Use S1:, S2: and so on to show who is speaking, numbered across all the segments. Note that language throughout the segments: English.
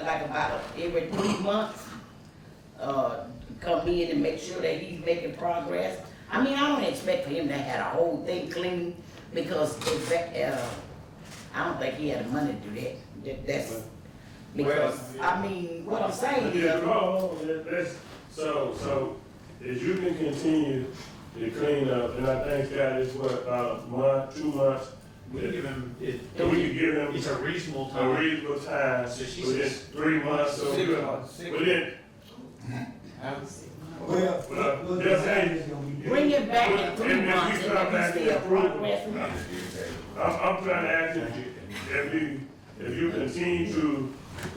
S1: like about every three months, uh, come in and make sure that he's making progress. I mean, I don't expect for him to have a whole thing clean, because in fact, uh, I don't think he had the money to do that, that, that's, because, I mean, what I'm saying
S2: Yeah,
S1: is,
S2: no, that- that's, so, so, if you can continue the cleanup, and I think that is what, about a month, two months,
S3: We can give him, it,
S2: that we can give
S3: it's
S2: them
S3: a reasonable
S2: a
S3: time.
S2: reasonable time,
S3: So she
S2: within
S3: says-
S2: three months, so
S3: Six
S2: we're
S3: months, six
S2: within,
S4: Well,
S2: Well, that's
S4: look, look,
S2: it.
S4: it's gonna be-
S1: bring it back in three
S2: And if we
S1: months,
S2: come
S1: and
S2: back
S1: if
S2: and
S1: he's still
S2: approve it,
S1: progressing.
S2: I'm, I'm trying to ask you, if you, if you continue to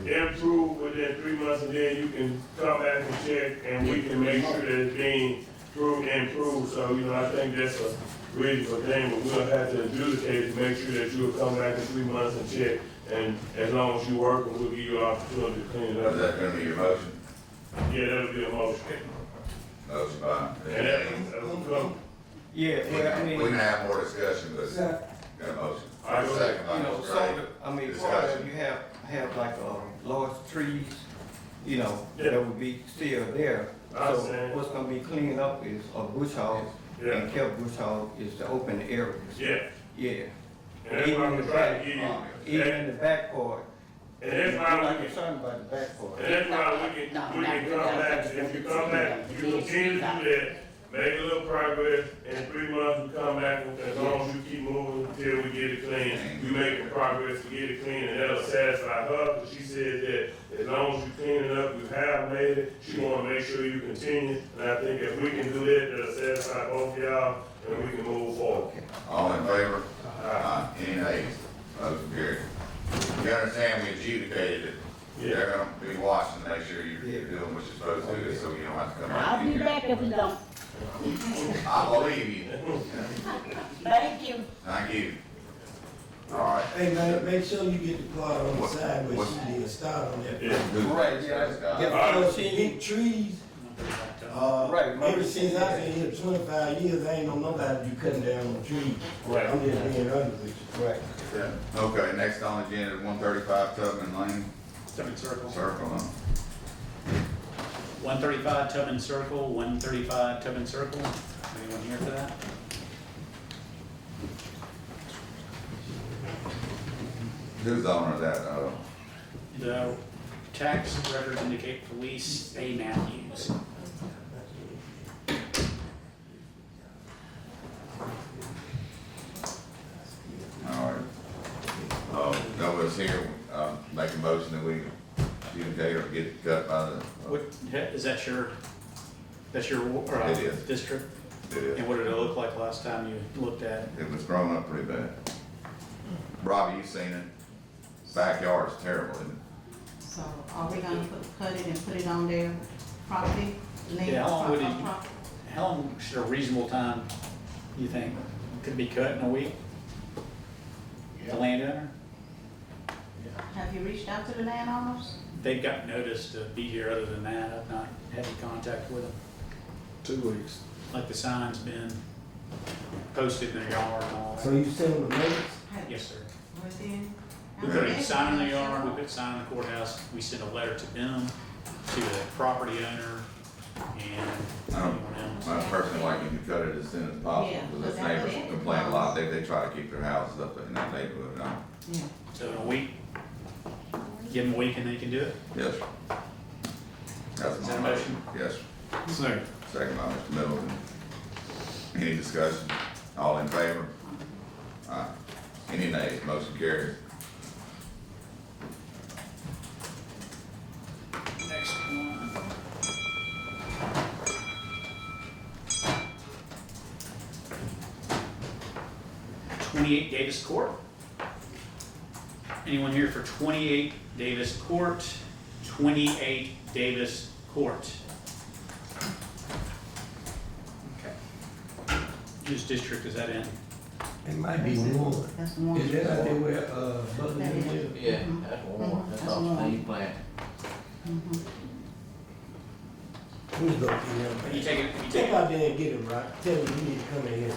S2: improve within three months, and then you can come back and check, and we can make sure that it's being improved, improved, so, you know, I think that's a reasonable thing, but we'll have to adjudicate to make sure that you'll come back in three months and check, and as long as you work, we'll give you an opportunity to clean it
S5: Is
S2: up.
S5: that gonna be your motion?
S2: Yeah, that'll be a motion,
S5: Motion by.
S2: and that, that'll come,
S6: Yeah, well, I
S5: We
S6: mean,
S5: can
S6: you
S5: have more discussion, but it's
S4: So,
S5: got a motion.
S2: I will-
S5: Second by
S6: know,
S5: Mr.
S6: so,
S5: Gray.
S6: I mean, part of,
S5: Discussion.
S6: you have, have like, uh, large trees, you know,
S2: Yeah.
S6: that would be still there.
S2: I
S6: So
S2: understand.
S6: what's gonna be cleaned up is a bush hog,
S2: Yeah.
S6: and kept bush hog is the open areas.
S2: yeah,
S6: Yeah.
S2: and that's why I'm trying to give
S6: Uh,
S2: you, and,
S6: Even the back part.
S2: and that's
S6: I'm
S2: why
S6: not
S2: we can
S6: concerned about the back part.
S2: And that's why we
S1: No,
S2: can, we
S1: not
S2: can
S1: without
S2: come back,
S1: that.
S2: if you come back, you continue to do that, make a little progress, in three months, we come back, as long as you keep moving until we get it clean. You making progress to get it clean, and that'll satisfy her, because she said that as long as you clean it up, you have made it, she wanna make sure you continue, and I think if we can do that, that'll satisfy both y'all, and we can move forward.
S5: All in favor? Aye. Any nays? Motion carried. You understand, we adjudicated it.
S2: Yeah.
S5: They're gonna be watching, to make sure you're doing what you're supposed to, do, so you don't have to come out.
S1: I'll be back if we don't,
S5: I believe you.
S1: thank you.
S5: Thank you. All right.
S4: hey, man, make sure you get the part on the
S5: What-
S4: side where
S5: what-
S4: she did start on that.
S2: Yeah,
S6: Right, yeah.
S5: Scott.
S6: Yeah,
S4: Because
S6: because
S4: she
S6: she,
S4: big trees, uh,
S6: Right.
S4: ever since I've been here twenty-five years, I ain't know nobody you cutting down on trees.
S6: Right.
S4: I'm just being honest with you.
S6: right.
S5: Okay, next on the agenda, one thirty-five Tubman Lane,
S3: Tubman Circle.
S5: circle, huh?
S3: One thirty-five Tubman Circle, one thirty-five Tubman Circle. Anyone here for that?
S5: Who's the owner of that, uh,
S3: The tax records indicate police A Matthews.
S5: all right. Uh, no one's here, um, make a motion that we adjudicate or get cut by the, uh,
S3: What, is that your, that's your, uh,
S5: It is.
S3: district?
S5: it is.
S3: And what did it look like last time you looked at it?
S5: It was growing up pretty bad. Robbie, you seen it? Backyard's terrible, isn't it?
S7: So are we gonna put, cut it and put it on their property? land,
S3: Yeah, how long would it-
S7: pro- property?
S3: How long should a reasonable time, you think, could be cut in a week? The landowner?
S7: Have you reached out to the landowners?
S3: They've got notice to be here, other than that, I've not had any contact with them.
S8: Two weeks.
S3: Like the sign's been posted in their yard and all
S4: So
S3: that.
S4: you send them the notes?
S7: Have-
S3: Yes, sir.
S7: Was in?
S3: We put a sign in the yard, we put a sign in the courthouse, we sent a letter to them, to the property owner, and
S5: I
S8: Oh.
S5: don't-
S3: anyone else.
S5: I personally like you to cut it as soon as possible,
S7: Yeah,
S5: because
S7: but
S5: those
S7: that
S5: neighbors
S7: would-
S5: complain a lot, they, they try to keep their houses up in that neighborhood, and all.
S7: Yeah.
S3: So in a week, give them a week and they can do it.
S5: Yes. sir. That's
S3: Is that
S5: my
S3: a
S5: motion. Yes. sir.
S3: Sir.
S5: Second by Mr. Middleton. Any discussion? All in favor? Aye. Any nays? Motion carries.
S3: Next one. Twenty-eight Davis Court. Anyone here for twenty-eight Davis Court? Twenty-eight Davis Court. Okay. Whose district is that in?
S4: It might be one.
S7: That's one.
S4: Is that out there where, uh, Butler
S7: That is.
S4: live?
S9: Yeah, that's
S7: Mhm,
S9: one, that's
S7: that's
S9: off
S7: one.
S9: Steve Plant.
S7: Mhm.
S4: We go through them.
S3: You take it, you take
S4: Take
S3: it.
S4: out there and get him, right? Tell him you need to come in here.